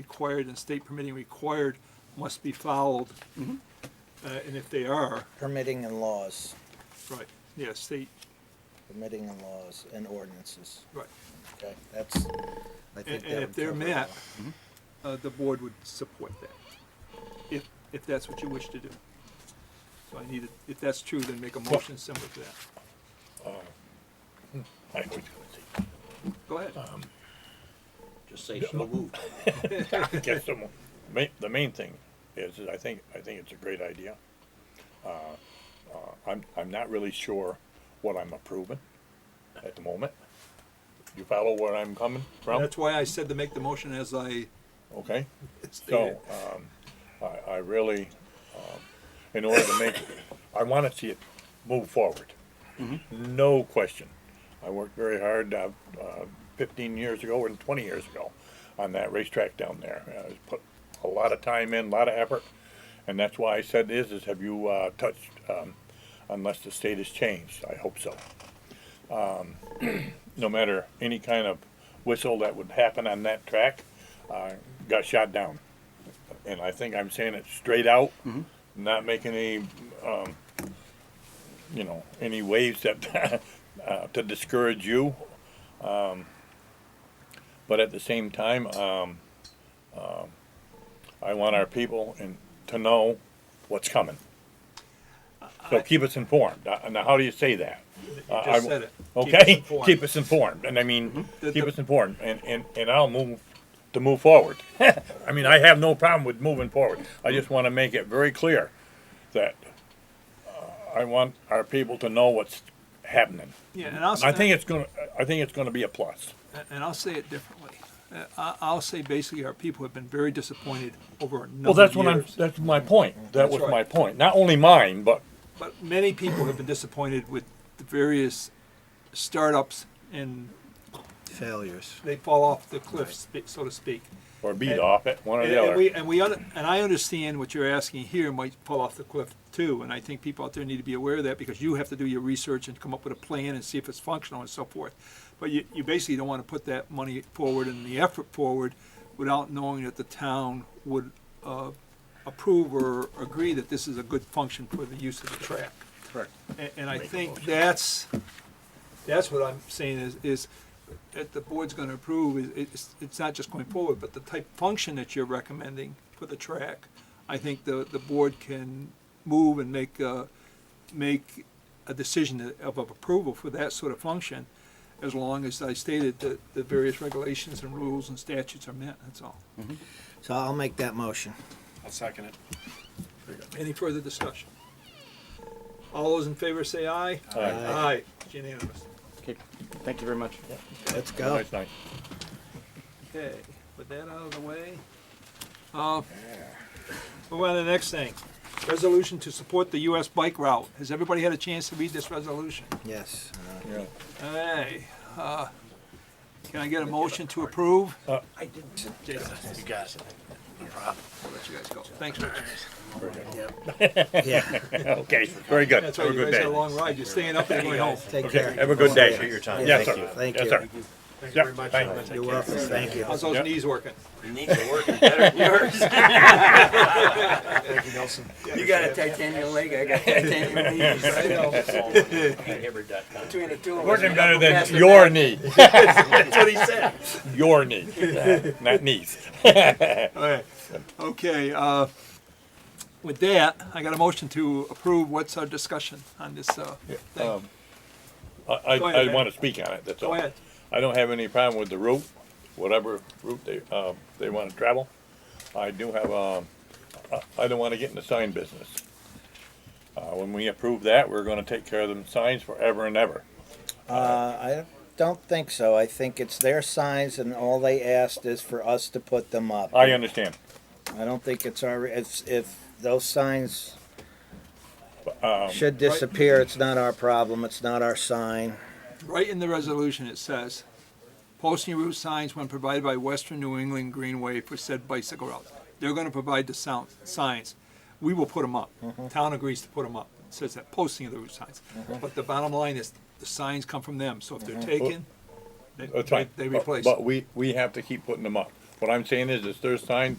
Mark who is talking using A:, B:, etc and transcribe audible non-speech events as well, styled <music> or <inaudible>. A: required and state permitting required must be followed.
B: Mm-hmm.
A: Uh, and if they are,
B: Permitting and laws,
A: right, yeah, state,
B: permitting and laws and ordinances,
A: right.
B: okay, that's, I
A: And,
B: think that would
A: and if they're
B: cover it Mm-hmm.
A: met,
B: all.
A: uh, the board would support that, if, if that's what you wish to do. So I need, it- if that's true, then make a motion similar to that.
C: I was gonna say,
A: Go ahead.
C: Uh,
D: Just say so moved.
C: I guess the, mo- ma- the <laughs> main thing is, is I think, I think it's a great idea. Uh, uh, I'm, I'm not really sure what I'm approving at the moment. You follow where I'm coming from?
A: That's why I said to make the motion as I
C: Okay?
A: stated.
C: So,
B: uh,
C: um, I, I really, um, in order to make, I wanna see it move forward. No question. I worked very hard, uh, uh, fifteen years ago and twenty years ago on that racetrack down there. I put a lot of time in, a lot of effort, and that's why I said is, is have you, uh, touched, um, unless the state has changed, I hope so. Um, no matter any kind of whistle that would happen on that track, uh, got shot down and I think I'm saying it straight out, not making any, um, you know, any waves that <laughs> uh, to discourage you. Um, but at the same time, um, um, I want our people and to know what's coming. So keep us informed. Uh, Now, how do you say that?
A: You
C: Uh, I
A: just
C: w-
A: said it. Keep us
C: Okay,
A: informed.
C: keep us informed, and I mean,
A: Mm-hmm. The-
C: keep
A: the-
C: us informed, and, and, and I'll move, to move forward. <laughs> I mean, I have no problem with moving forward, I just wanna make it very clear that uh, I want our people to know what's happening.
A: Yeah, and I'll.
C: I think it's gonna, I think it's gonna be a plus.
A: and- and I'll say it differently. Uh, I- I'll say basically our people have been very disappointed over a number
C: Well,
A: of years. Mm-hmm.
C: that's what I'm, that's my point, that
A: That's
C: was
A: right.
C: my point, not only mine, but,
A: But many people have been disappointed with the various startups and
E: failures.
A: they fall off the cliff, sp- so to speak.
C: or beat
A: And-
C: off it, one or
A: And,
C: the
A: and
C: other.
A: we, and we, under- and I understand what you're asking here might fall off the cliff too, and I think people out there need to be aware of that because you have to do your research and come up with a plan and see if it's functional and so forth. But you, you basically don't want to put that money forward and the effort forward without knowing that the town would, uh, approve or agree that this is a good function for the use of the track.
E: Correct.
A: And, and I
C: Make a
A: think
C: motion.
A: that's, that's what I'm saying is, is that the board's gonna approve, is, it's, it's not just going forward, but the type function that you're recommending for the track, I think the, the board can move and make, uh, make a decision of, of approval for that sort of function, as long as I stated that the various regulations and rules and statutes are met, that's all.
B: So I'll make that motion.
E: I'll second it.
A: Any further discussion? All those in favor say aye.
C: Aye.
B: Aye.
A: Aye, It's unanimous.
E: Okay, thank you very much.
B: Let's go.
C: Nice night.
A: Okay, with that out of the way. uh, Move on to the next thing. Resolution to support the US bike route. Has everybody had a chance to read this resolution?
B: Yes. uh,
C: Yeah.
A: Hey, uh, can I get a motion to approve?
D: I didn't.
E: You got it.
A: I'll let you guys go. Thanks, Richard.
B: Yeah,
C: <laughs> <laughs> Okay, very good,
A: That's
C: have
A: right,
C: a
A: you
C: good
A: guys had a
C: day.
A: long ride. You're staying up there going home.
B: take
C: Okay,
B: care.
C: have a good day.
B: Thank you.
E: time.
C: Yes,
B: Yeah,
C: sir.
B: Thank
C: Yes,
B: you.
C: sir.
E: Thank
C: you very much.
B: You're welcome, thank you.
A: How's those
C: Yep.
A: knees
C: <laughs>
A: working?
D: Your knees are working better than yours.
E: Thank you, Nelson.
D: You got a titanium leg, I got titanium knees.
A: I know.
D: Between the two of us.
C: Working
D: we
C: better
D: don't pass
C: than
D: the
C: your
D: back.
C: knee,
D: That's what he said.
C: your knee,
A: <laughs>
C: not <laughs> knees.
A: Alright, okay, uh, with that, I got a motion to approve. What's our discussion on this, uh, thing?
C: Um, I, I,
A: Go ahead,
C: I
A: Ed.
C: wanna speak on it, that's all.
A: Go ahead.
C: I don't have any problem with the route, whatever route they, uh, they wanna travel. I do have, um, I, I don't wanna get in the sign business. Uh, when we approve that, we're gonna take care of them signs forever and ever.
B: Uh, I don't think so. I think it's their signs and all they asked is for us to put them up.
C: I understand.
B: I don't think it's our, if, if those signs
C: Um,
B: should disappear, it's not our problem, it's not our sign.
A: Right in the resolution, it says, posting route signs when provided by Western New England Greenway for said bicycle route. They're gonna provide the sound, signs. We will put them up. Town agrees to put them up. It says that, posting of the route signs. But the bottom line is, the signs come from them, so if they're taken, they,
C: That's Uh, fine.
A: they- they replace.
C: But we, we have to keep putting them up. What I'm saying is, it's their sign,